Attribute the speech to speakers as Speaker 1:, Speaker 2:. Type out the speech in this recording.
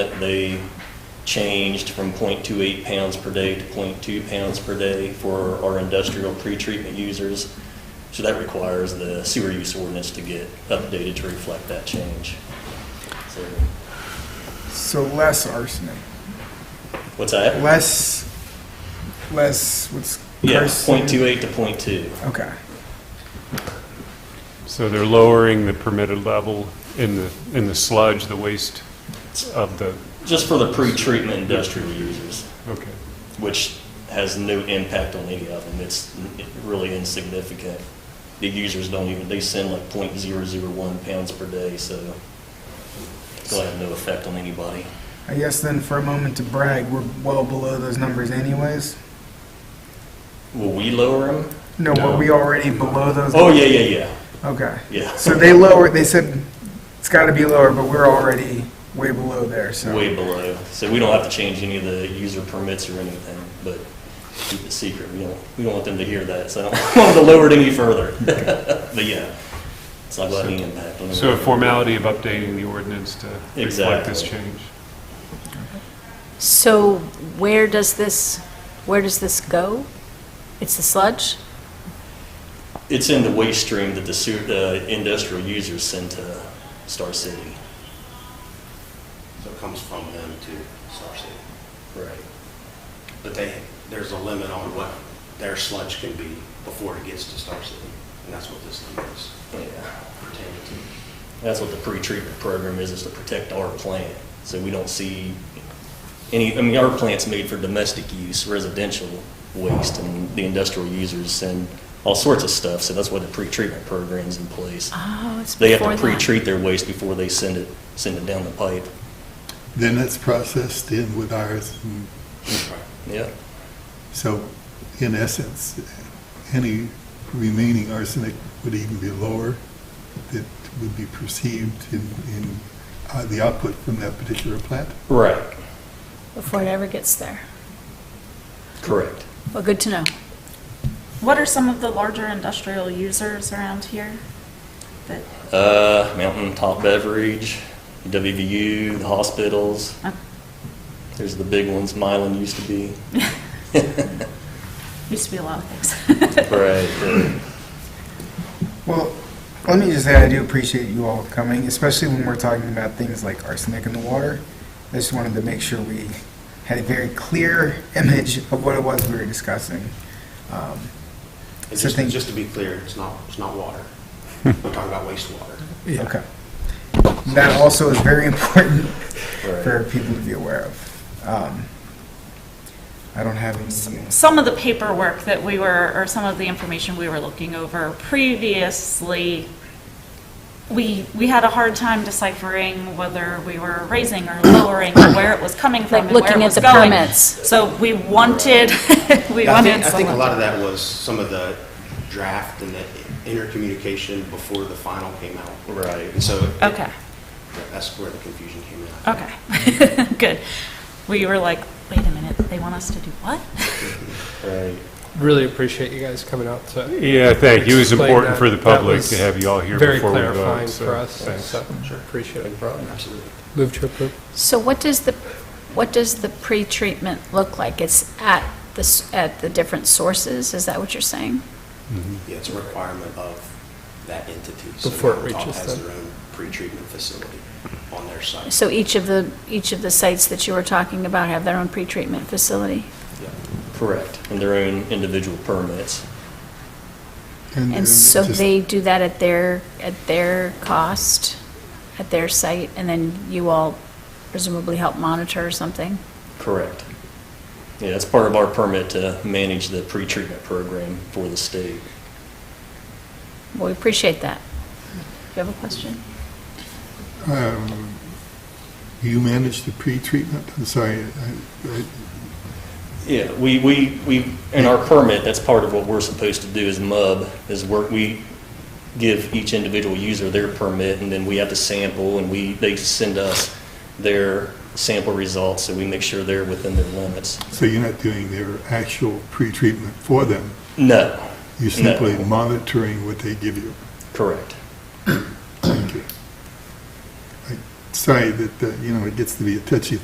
Speaker 1: that they changed from .28 pounds per day to .2 pounds per day for our industrial pretreatment users. So that requires the sewer use ordinance to get updated to reflect that change. So,
Speaker 2: So less arsenic,
Speaker 1: What's that?
Speaker 2: less, less, what's?
Speaker 1: Yeah,
Speaker 2: arsenic?
Speaker 1: .28 to .2.
Speaker 2: Okay,
Speaker 3: So they're lowering the permitted level in the, in the sludge, the waste of the,
Speaker 1: Just for the pretreatment industrial users,
Speaker 3: okay.
Speaker 1: which has no impact on any of them. It's really insignificant. The users don't even, they send like .001 pounds per day, so it'll have no effect on anybody.
Speaker 2: I guess then for a moment to brag, we're well below those numbers anyways.
Speaker 1: Will we lower them?
Speaker 2: No, were
Speaker 3: No.
Speaker 2: we already below those?
Speaker 1: Oh, yeah, yeah, yeah,
Speaker 2: Okay,
Speaker 1: yeah.
Speaker 2: so they lowered, they said it's gotta be lower, but we're already way below there, so.
Speaker 1: Way below. So we don't have to change any of the user permits or anything, but keep it secret. We don't, we don't want them to hear that, so I don't want them to lower it any further. But yeah, it's not going to have any impact on them.
Speaker 3: So a formality of updating the ordinance to reflect this
Speaker 1: Exactly.
Speaker 3: change.
Speaker 4: So where does this, where does this go? It's the sludge?
Speaker 1: It's in the waste stream that the sewer, the industrial users send to Star City.
Speaker 5: So it comes from them to Star City.
Speaker 1: Right.
Speaker 5: But they, there's a limit on what their sludge can be before it gets to Star City. And that's what this limit is
Speaker 1: Yeah.
Speaker 5: pertaining to.
Speaker 1: That's what the pretreatment program is, is to protect our plant. So we don't see any, I mean, our plant's made for domestic use, residential waste, and the industrial users send all sorts of stuff. So that's why the pretreatment program's in place.
Speaker 4: Oh, it's
Speaker 1: They have
Speaker 4: before
Speaker 1: to
Speaker 4: that.
Speaker 1: pre-treat their waste before they send it, send it down the pipe.
Speaker 6: Then it's processed in with ours. and
Speaker 1: Yeah.
Speaker 6: So in essence, any remaining arsenic would even be lower that would be perceived in, in uh, the output from that particular plant.
Speaker 1: Right.
Speaker 4: Before it ever gets there.
Speaker 1: Correct.
Speaker 4: Well, good to know.
Speaker 7: What are some of the larger industrial users around here? That,
Speaker 1: Uh, Mountain Top Beverage, WVU, the hospitals.
Speaker 7: uh,
Speaker 1: There's the big ones, Mylan used to be.
Speaker 7: used to be a lot of things.
Speaker 1: Right.
Speaker 2: Well, let me just say, I do appreciate you all coming, especially when we're talking about things like arsenic in the water. I just wanted to make sure we had a very clear image of what it was we were discussing. Um,
Speaker 5: And
Speaker 2: So
Speaker 5: just,
Speaker 2: think-
Speaker 5: just to be clear, it's not, it's not water. We're talking about wastewater.
Speaker 2: Okay. That also is very important for
Speaker 1: Right.
Speaker 2: people to be aware of. Um, I don't have any,
Speaker 7: Some of the paperwork that we were, or some of the information we were looking over previously, we, we had a hard time deciphering whether we were raising or lowering, or where it was coming from
Speaker 4: Like
Speaker 7: and where
Speaker 4: looking at
Speaker 7: it was
Speaker 4: the
Speaker 7: going.
Speaker 4: permits.
Speaker 7: So we wanted, we
Speaker 5: I think,
Speaker 7: wanted
Speaker 5: I think a
Speaker 7: someone-
Speaker 5: lot of that was some of the draft and the intercommunication before the final came out.
Speaker 1: Right.
Speaker 5: And so it-
Speaker 7: Okay.
Speaker 5: that's where the confusion came in. I think.
Speaker 7: Okay, good. We were like, wait a minute, they want us to do what?
Speaker 1: Right.
Speaker 8: Really appreciate you guys coming out to.
Speaker 3: Yeah, thank you. It was
Speaker 8: explain
Speaker 3: important
Speaker 8: that.
Speaker 3: for the
Speaker 8: That
Speaker 3: public
Speaker 8: was
Speaker 3: to have you all here
Speaker 8: Very
Speaker 3: before we vote.
Speaker 8: clarifying
Speaker 3: so
Speaker 8: for us,
Speaker 3: thanks.
Speaker 8: so appreciate it.
Speaker 5: Absolutely.
Speaker 8: Move to approve.
Speaker 4: So what does the, what does the pretreatment look like? It's at the, s- at the different sources? Is that what you're saying?
Speaker 3: Mm-hmm.
Speaker 5: Yeah, it's a requirement of that entity.
Speaker 8: Before it
Speaker 5: So Mountaintop
Speaker 8: reaches
Speaker 5: has
Speaker 8: them.
Speaker 5: their own pretreatment facility on their site.
Speaker 4: So each of the, each of the sites that you were talking about have their own pretreatment facility?
Speaker 5: Yeah.
Speaker 1: Correct. And their own individual permits.
Speaker 6: Mm-hmm.
Speaker 4: And so they do that at their, at their cost, at their site, and then you all presumably help monitor or something?
Speaker 1: Correct. Yeah, it's part of our permit to manage the pretreatment program for the state.
Speaker 4: Well, we appreciate that. Do you have a question?
Speaker 6: Um, You manage the pre-treatment? I'm sorry, I- I-
Speaker 1: Yeah, we, we, we, in our permit, that's part of what we're supposed to do as MUB, is work, we give each individual user their permit, and then we have to sample, and we, they send us their sample results, so we make sure they're within their limits.
Speaker 6: so you're not doing their actual pre-treatment for them?
Speaker 1: No,
Speaker 6: You're simply
Speaker 1: No.
Speaker 6: monitoring what they give you?
Speaker 1: correct.
Speaker 6: Thank you. I sorry that, uh, you know, it gets to be a touchy